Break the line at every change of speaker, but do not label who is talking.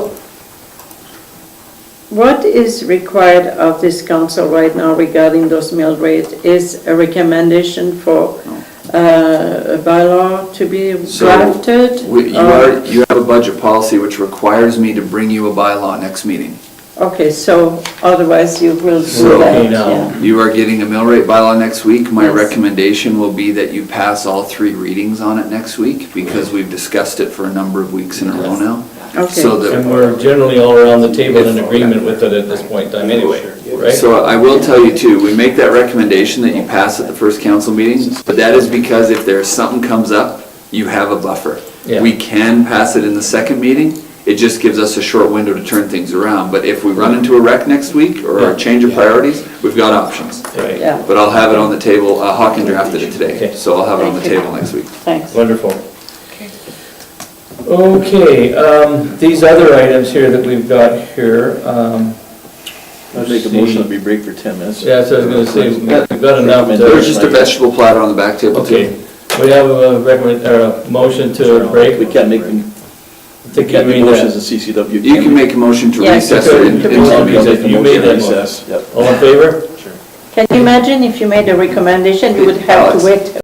What is required of this council right now regarding those mill rates is a recommendation for uh, a bylaw to be
So,
drafted?
We- You
or-
are, you have a budget policy which requires me to bring you a bylaw next meeting.
Okay, so otherwise you will do
So-
that,
No.
yeah.
You are getting a mill rate bylaw next week. My
Yes.
recommendation will be that you pass all three readings on it next week because we've discussed it for a number of weeks in a row now.
Okay.
So
And
the,
we're generally all around the table in agreement with it at this point in time anyway, right?
so I will tell you too, we make that recommendation that you pass at the first council meeting, but that is because if there's something comes up, you have a buffer.
Yeah.
We can pass it in the second meeting. It just gives us a short window to turn things around. But if we run into a wreck next week or
Yeah.
a change of priorities, we've got options.
Right,
Yeah,
But I'll have it on the table, uh, Hawken drafted it today,
Okay.
so I'll have it on the
Thank you.
table next week.
thanks.
wonderful. Okay, um, these other items here that we've got here, um.
I'd make a motion that we break for 10 minutes.
Yeah, so I was gonna say, we've got enough. to-
There's just a vegetable platter on the back table
Okay,
too.
we have a recommend, or a motion to break.
We can't make, we
To give
can't
me
make motions in
that.
CCW.
You can make a motion to
Yeah,
recess
you
it
could.
in-
You
into the
could.
meeting.
that. You made that motion.
Recess, yep.
All in favor?
Can you imagine if you made a recommendation, you would have to
Alex.
wait